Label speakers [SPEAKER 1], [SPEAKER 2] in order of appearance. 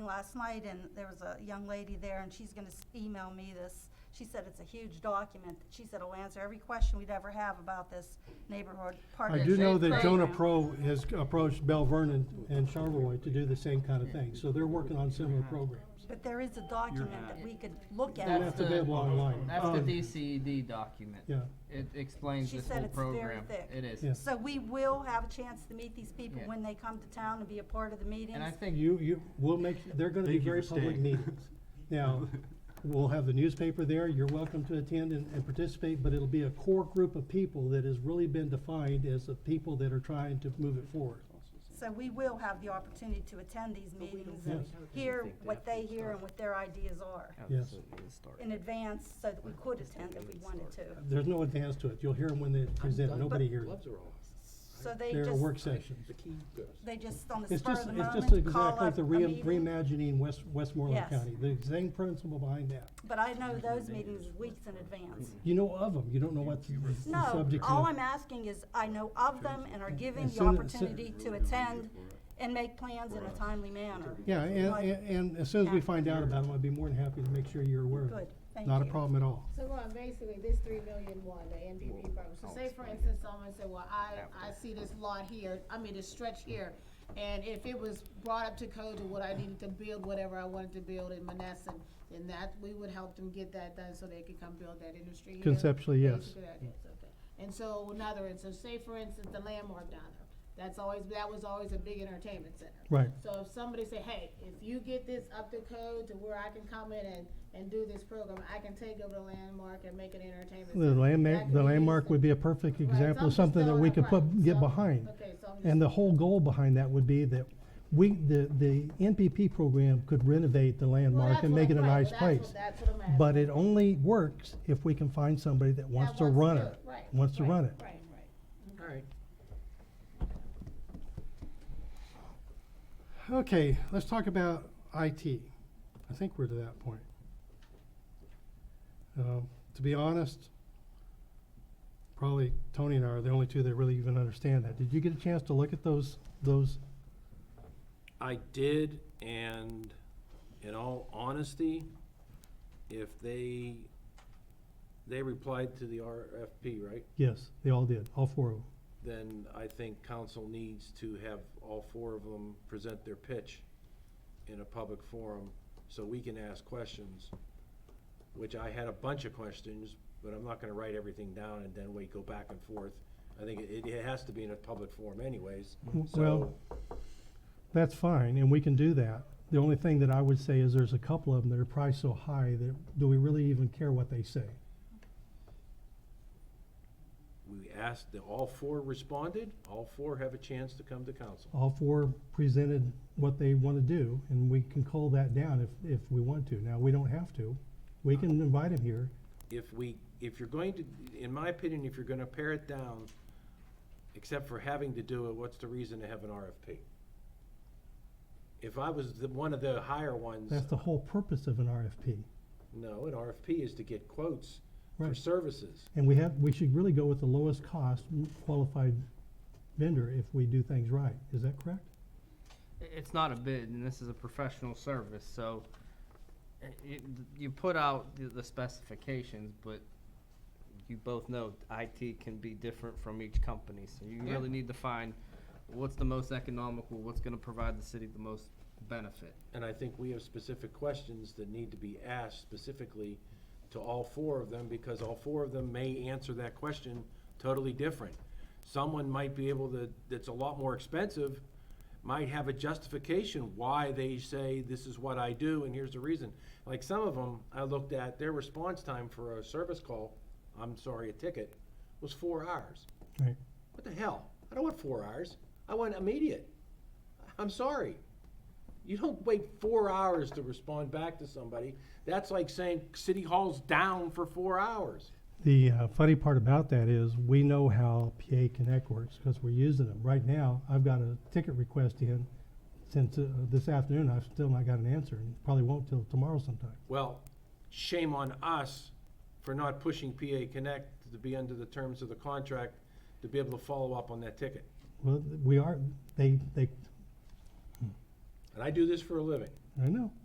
[SPEAKER 1] last night, and there was a young lady there, and she's gonna s- email me this. She said it's a huge document. She said it'll answer every question we'd ever have about this neighborhood
[SPEAKER 2] I
[SPEAKER 1] partnership.
[SPEAKER 2] do know that Jonah
[SPEAKER 1] program.
[SPEAKER 2] Pro has approached Bell Vernon and Charlevoix to do the same kind of thing, so they're working on similar programs.
[SPEAKER 1] But there is a document that we could look
[SPEAKER 2] You don't
[SPEAKER 1] at.
[SPEAKER 2] have to be able online.
[SPEAKER 3] That's the
[SPEAKER 2] Um,
[SPEAKER 3] DCED document.
[SPEAKER 2] Yeah,
[SPEAKER 3] It explains
[SPEAKER 1] She
[SPEAKER 3] this
[SPEAKER 1] said
[SPEAKER 3] whole
[SPEAKER 1] it's very
[SPEAKER 3] program.
[SPEAKER 1] thick.
[SPEAKER 3] It is.
[SPEAKER 2] Yeah.
[SPEAKER 1] So we will have a chance to meet these people
[SPEAKER 3] Yeah.
[SPEAKER 1] when they come to town and be a part of the meetings.
[SPEAKER 3] And I think,
[SPEAKER 2] you, you, we'll make, they're gonna be
[SPEAKER 4] Thank you
[SPEAKER 2] very
[SPEAKER 4] for
[SPEAKER 2] public
[SPEAKER 4] staying.
[SPEAKER 2] meetings. Now, we'll have the newspaper there, you're welcome to attend and, and participate, but it'll be a core group of people that has really been defined as the people that are trying to move it forward.
[SPEAKER 1] So we will have the opportunity to attend these meetings and
[SPEAKER 2] Yes.
[SPEAKER 1] hear what they hear and what their ideas are
[SPEAKER 2] Yes.
[SPEAKER 1] in advance so that we could attend if we wanted to.
[SPEAKER 2] There's no advance to it, you'll hear them when they present, nobody hears them.
[SPEAKER 1] So they
[SPEAKER 2] They're work
[SPEAKER 1] just,
[SPEAKER 2] sessions.
[SPEAKER 1] they just on the
[SPEAKER 2] It's
[SPEAKER 1] spur of
[SPEAKER 2] just,
[SPEAKER 1] the
[SPEAKER 2] it's just
[SPEAKER 1] moment, call
[SPEAKER 2] exactly
[SPEAKER 1] up a
[SPEAKER 2] the re-
[SPEAKER 1] meeting.
[SPEAKER 2] reimagining West, Westmoreland
[SPEAKER 1] Yes.
[SPEAKER 2] County, the same principle behind that.
[SPEAKER 1] But I know those meetings weeks in advance.
[SPEAKER 2] You know of them, you don't know what the the
[SPEAKER 1] No,
[SPEAKER 2] Mm-hmm. subject
[SPEAKER 1] all
[SPEAKER 2] is.
[SPEAKER 1] I'm asking is I know of them and are given
[SPEAKER 2] As
[SPEAKER 1] the
[SPEAKER 2] soon as-
[SPEAKER 1] opportunity to attend and make plans in a timely manner.
[SPEAKER 2] Yeah, and,
[SPEAKER 1] Like-
[SPEAKER 2] and, and as soon as we find out about them, I'd be more than happy to make sure you're aware of
[SPEAKER 1] Good,
[SPEAKER 2] it.
[SPEAKER 1] thank you.
[SPEAKER 2] Not a problem at all.
[SPEAKER 5] So Ron, basically, this three million one, the MVP program, so say for instance, someone said, well, I, I see this lot here, I mean, this stretch here. And if it was brought up to code to what I needed to build, whatever I wanted to build in Menneson, then that, we would help them get that done so they could come build that industry here.
[SPEAKER 2] Conceptually,
[SPEAKER 5] That's
[SPEAKER 2] yes.
[SPEAKER 5] a good idea, it's okay. And so another, and so say for instance, the landmark down there, that's always, that was always a big entertainment center.
[SPEAKER 2] Right.
[SPEAKER 5] So if somebody say, hey, if you get this up to code to where I can come in and, and do this program, I can take over the landmark and make it entertainment.
[SPEAKER 2] The
[SPEAKER 5] center. That
[SPEAKER 2] landmark,
[SPEAKER 5] could
[SPEAKER 2] the
[SPEAKER 5] be
[SPEAKER 2] landmark
[SPEAKER 5] used
[SPEAKER 2] would
[SPEAKER 5] in-
[SPEAKER 2] be a perfect
[SPEAKER 5] Right,
[SPEAKER 2] example of
[SPEAKER 5] so I'm just
[SPEAKER 2] something that
[SPEAKER 5] throwing
[SPEAKER 2] we
[SPEAKER 5] up-
[SPEAKER 2] could
[SPEAKER 5] right,
[SPEAKER 2] put, get
[SPEAKER 5] so-
[SPEAKER 2] behind.
[SPEAKER 5] Okay, so I'm
[SPEAKER 2] And
[SPEAKER 5] just,
[SPEAKER 2] the whole goal behind that would be that we, the, the NPP program could renovate the
[SPEAKER 5] well,
[SPEAKER 2] landmark
[SPEAKER 5] that's
[SPEAKER 2] and
[SPEAKER 5] what
[SPEAKER 2] make it
[SPEAKER 5] I'm-
[SPEAKER 2] a
[SPEAKER 5] right,
[SPEAKER 2] nice
[SPEAKER 5] well, that's
[SPEAKER 2] place.
[SPEAKER 5] what- that's what I'm asking.
[SPEAKER 2] But it only works if we can find somebody that wants
[SPEAKER 5] That
[SPEAKER 2] to run
[SPEAKER 5] do
[SPEAKER 2] it,
[SPEAKER 5] right,
[SPEAKER 2] wants to
[SPEAKER 5] right,
[SPEAKER 2] run it.
[SPEAKER 5] Right, right.
[SPEAKER 3] alright.
[SPEAKER 2] Okay, let's talk about IT. I think we're to that point. Um, To be honest, probably Tony and I are the only two that really even understand that. Did you get a chance to look at those, those?
[SPEAKER 6] I did, and in all honesty, if they, they replied to the RFP, right?
[SPEAKER 2] Yes, they all did, all four of them.
[SPEAKER 6] Then I think council needs to have all four of them present their pitch in a public forum so we can ask questions, which I had a bunch of questions, but I'm not gonna write everything down and then wait, go back and forth. I think it, it has to be in a public forum anyways,
[SPEAKER 2] W-
[SPEAKER 6] so,
[SPEAKER 2] well- That's fine, and we can do that. The only thing that I would say is there's a couple of them that are priced so high that, do we really even care what they say?
[SPEAKER 6] we asked, that all four responded, all four have a chance to come to council.
[SPEAKER 2] all four presented what they want to do, and we can cull that down if, if we want to. Now, we don't have to. We can invite them here.
[SPEAKER 6] if we, if you're going to, in my opinion, if you're gonna pare it down, except for having to do it, what's the reason to have an RFP? If I was the, one of the higher ones,
[SPEAKER 2] That's the whole purpose of an RFP.
[SPEAKER 6] no, an RFP is to get quotes for
[SPEAKER 2] Right.
[SPEAKER 6] services.
[SPEAKER 2] And we have, we should really go with the lowest cost qualified vendor if we do things right. Is that correct?
[SPEAKER 3] It's not a bid, and this is a professional service, so i- it, you put out the- the specifications, but you both know IT can be different from each company, so you really need to find what's the most economical, what's gonna provide the city the most benefit.
[SPEAKER 6] And I think we have specific questions that need to be asked specifically to all four of them, because all four of them may answer that question totally different. Someone might be able to, that's a lot more expensive, might have a justification why they say, this is what I do, and here's the reason. Like some of them, I looked at, their response time for a service call, I'm sorry, a ticket, was four hours.
[SPEAKER 2] Right.
[SPEAKER 6] What the hell? I don't want four hours. I want immediate. I'm sorry. You don't wait four hours to respond back to somebody. That's like saying City Hall's down for four hours.
[SPEAKER 2] The uh, funny part about that is we know how PA Connect works because we're using them. Right now, I've got a ticket request in since uh, this afternoon. I've still not got an answer and probably won't till tomorrow sometime.
[SPEAKER 6] Well, shame on us for not pushing PA Connect to be under the terms of the contract to be able to follow up on that ticket.
[SPEAKER 2] Well, we are, they, they,
[SPEAKER 6] And I do this for a living.
[SPEAKER 2] I know.